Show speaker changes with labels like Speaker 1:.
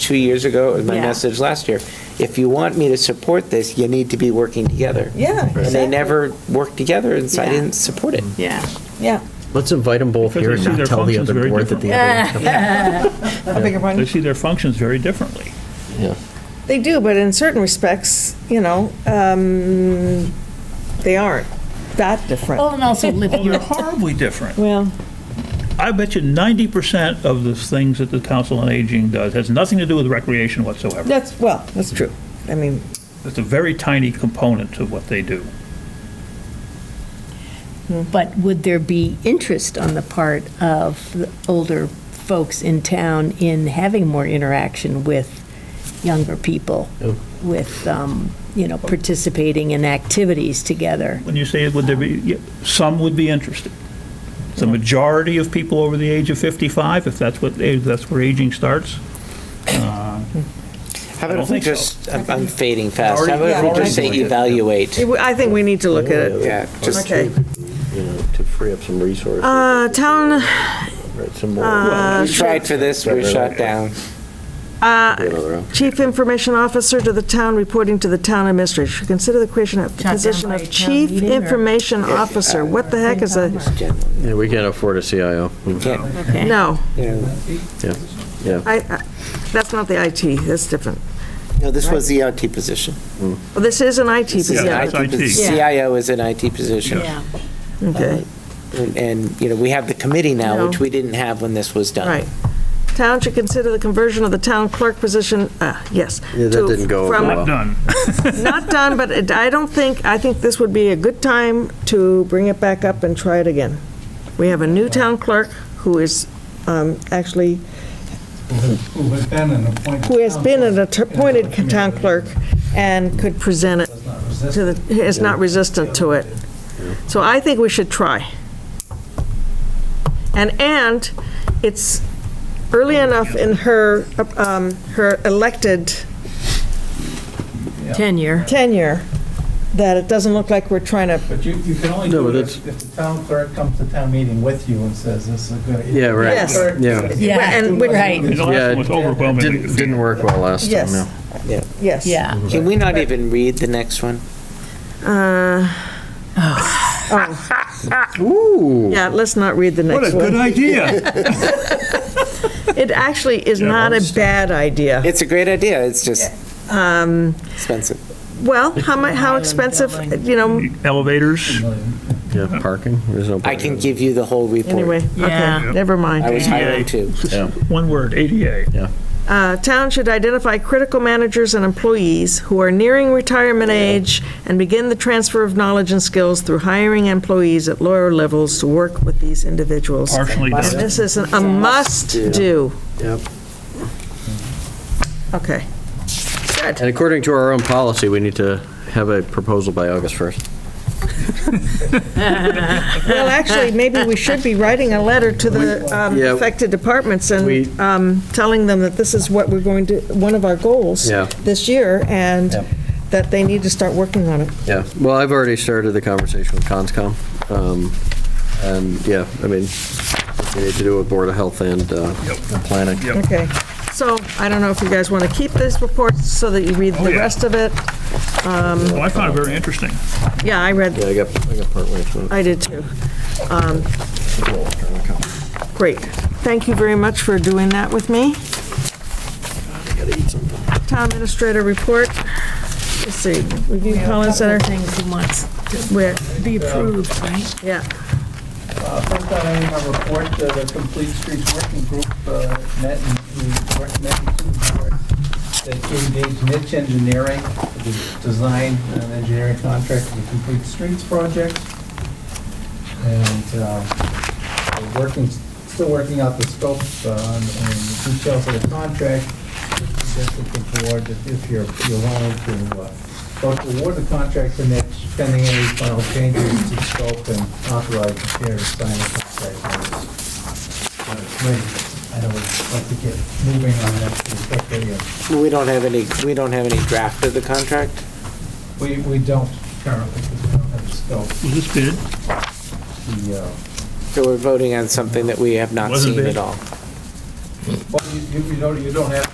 Speaker 1: two years ago, it was my
Speaker 2: Yeah.
Speaker 1: message last year. If you want me to support this, you need to be working together.
Speaker 3: Yeah,
Speaker 1: And they
Speaker 3: exactly.
Speaker 1: never worked together, and so I
Speaker 2: Yeah.
Speaker 1: didn't support it.
Speaker 2: Yeah.
Speaker 3: Yeah,
Speaker 4: Let's invite them both
Speaker 5: Because
Speaker 4: here
Speaker 5: they
Speaker 4: and
Speaker 5: see
Speaker 4: not
Speaker 5: their
Speaker 4: tell the
Speaker 5: functions
Speaker 4: other
Speaker 5: very
Speaker 4: board that the other.
Speaker 3: a bigger
Speaker 5: They
Speaker 3: one.
Speaker 5: see their functions very differently.
Speaker 4: Yeah.
Speaker 3: They do, but in certain respects, you know, um, they aren't that different.
Speaker 1: Oh.
Speaker 2: Well, and also live
Speaker 5: Well, Oh, they're
Speaker 2: your,
Speaker 5: horribly different.
Speaker 3: Well,
Speaker 5: I bet you ninety percent of the things that the Council on Aging does has nothing to do with recreation whatsoever.
Speaker 3: that's, well, that's true. I mean,
Speaker 5: It's a very tiny component of what they do.
Speaker 2: but would there be interest on the part of the older folks in town in having more interaction with younger people?
Speaker 4: Oh.
Speaker 2: With, um, you know, participating in activities together?
Speaker 5: When you say, would there be, yeah, some would be interested. The majority of people over the age of fifty-five, if that's what, if that's where aging starts. uh,
Speaker 1: How
Speaker 5: I
Speaker 1: about if
Speaker 5: don't
Speaker 1: we
Speaker 5: think so.
Speaker 1: just, I'm I'm fading fast.
Speaker 4: Already-
Speaker 1: How about if
Speaker 3: Yeah.
Speaker 1: we just say
Speaker 4: Already-
Speaker 1: evaluate?
Speaker 3: it- I think we need to look at it.
Speaker 1: Yeah, just-
Speaker 3: Okay.
Speaker 4: You know, to free up some resources.
Speaker 3: Uh, town, uh,
Speaker 4: Right, some more.
Speaker 1: We tried for this, we were shot down.
Speaker 4: Another
Speaker 3: Uh, Chief Information Officer to the town, reporting to the town administrator. Should Consider the creation of
Speaker 2: down
Speaker 3: position
Speaker 2: by
Speaker 3: of
Speaker 2: town
Speaker 3: Chief
Speaker 2: meeting or-
Speaker 3: Information Officer. What the heck is a,
Speaker 4: Yeah, we can't afford a CIO.
Speaker 1: Can't-
Speaker 2: Okay.
Speaker 3: no,
Speaker 1: you know,
Speaker 4: Yeah, yeah.
Speaker 3: I, I- that's not the IT, that's different.
Speaker 1: No, this was the IT position.
Speaker 3: Well, This is an IT
Speaker 1: This is
Speaker 3: position.
Speaker 1: an
Speaker 5: Yeah, that's
Speaker 1: IT
Speaker 5: IT.
Speaker 1: posi-
Speaker 2: Yeah.
Speaker 1: CIO is an IT position. Uh,
Speaker 2: Yeah.
Speaker 3: Okay,
Speaker 1: And- And, you know, we have the committee now,
Speaker 3: No.
Speaker 1: which we didn't have when this was done.
Speaker 3: right. Town should consider the conversion of the town clerk position, uh, yes.
Speaker 4: Yeah, that
Speaker 3: to-
Speaker 4: didn't go over
Speaker 3: from-
Speaker 4: well.
Speaker 5: Done.
Speaker 3: Not done, but it- I don't think, I think this would be a good time to bring it back up and try it again. We have a new town clerk who is um, actually,
Speaker 6: Who has been an appointed.
Speaker 3: who has been an
Speaker 6: counsel in
Speaker 3: appointed
Speaker 6: another community
Speaker 3: town clerk and could present it
Speaker 6: Does not resist
Speaker 3: to the, is not resistant to it. So I think we should try. And, and it's early enough in her, um, her elected
Speaker 2: Tenure.
Speaker 3: tenure that it doesn't look like we're trying to,
Speaker 6: But you, you can only
Speaker 4: No,
Speaker 6: do
Speaker 4: but
Speaker 6: it if if the town clerk comes to town meeting with you and says, this is a good.
Speaker 4: Yeah, right.
Speaker 3: Yes.
Speaker 4: Yeah.
Speaker 3: and which-
Speaker 5: The
Speaker 6: Right.
Speaker 5: last
Speaker 4: Yeah,
Speaker 5: one was
Speaker 4: it
Speaker 5: overwhelmingly
Speaker 4: Didn't, didn't work well last time,
Speaker 3: yes,
Speaker 4: no.
Speaker 3: yes.
Speaker 2: Yeah.
Speaker 1: Can we not even read the next one?
Speaker 3: Uh,
Speaker 4: Ooh.
Speaker 3: Yeah, let's not read the
Speaker 5: What a
Speaker 3: next
Speaker 5: good
Speaker 3: one.
Speaker 5: idea.
Speaker 3: It actually is
Speaker 5: Yeah,
Speaker 3: not a
Speaker 5: most-
Speaker 3: bad idea.
Speaker 1: It's a great idea, it's just
Speaker 3: Um,
Speaker 1: expensive.
Speaker 3: Well, how mu, how expensive, you know,
Speaker 5: Elevators,
Speaker 4: Yeah, parking, there's no.
Speaker 1: I can give you the whole
Speaker 3: anyway,
Speaker 1: report.
Speaker 3: okay,
Speaker 2: Yeah.
Speaker 3: never mind.
Speaker 1: I was hiring too.
Speaker 5: one word, ADA.
Speaker 3: Uh, Town should identify critical managers and employees who are nearing retirement age and begin the transfer of knowledge and skills through hiring employees at lower levels to work with these individuals.
Speaker 5: Partially
Speaker 3: And
Speaker 5: done.
Speaker 3: This is a must-do.
Speaker 4: Yep.
Speaker 3: Okay.
Speaker 4: And according to our own policy, we need to have a proposal by August 1st.
Speaker 3: Well, actually, maybe we should be writing a letter to the um,
Speaker 4: Yeah.
Speaker 3: affected departments
Speaker 4: We-
Speaker 3: and um, telling them that this is what we're going to, one of our goals
Speaker 4: Yeah.
Speaker 3: this year, and
Speaker 4: Yep.
Speaker 3: that they need to start working on it.
Speaker 4: Yeah, well, I've already started the conversation with CONSCOM. um, And, yeah, I mean, we need to do it with Board of Health and uh, and Planning.
Speaker 5: Yep.
Speaker 3: Okay, so I don't know if you guys want to keep this report so that you read
Speaker 5: Oh,
Speaker 3: the
Speaker 5: yeah.
Speaker 3: rest of it.
Speaker 5: Well, I found it very interesting.
Speaker 3: Yeah, I
Speaker 4: Yeah,
Speaker 3: read,
Speaker 4: I got, I got partway through.
Speaker 3: I did too. Um, Great. Thank you very much for doing that with me. Town Administrator Report. Let's see, Review Collins
Speaker 2: Couple
Speaker 3: Center,
Speaker 2: of Things he wants to
Speaker 3: where,
Speaker 2: be approved, right?
Speaker 3: yeah.
Speaker 6: Uh, First I have a report, uh, the Complete Streets Working Group uh, met and we recommended to the board that to engage niche engineering, for the design and engineering contract for the Complete Streets project. And um, uh, we're working, still working out the scope uh, and and the details of the contract. Suggested the board that if you're, you're willing to uh, vote to award the contract for niche pending any final changes to scope and authorize the chair to sign the contract. when it's- when it's ready. I know we'd like to get moving on that pretty quickly. and
Speaker 1: We don't have any, we don't have any draft of the contract?
Speaker 6: We, we don't currently, because we don't have the scope.
Speaker 5: Was this bid?
Speaker 6: The, uh,
Speaker 1: So we're voting on something that we have not
Speaker 5: Wasn't
Speaker 1: seen
Speaker 5: big.
Speaker 1: at all.
Speaker 6: well, you, you- you don't, you don't have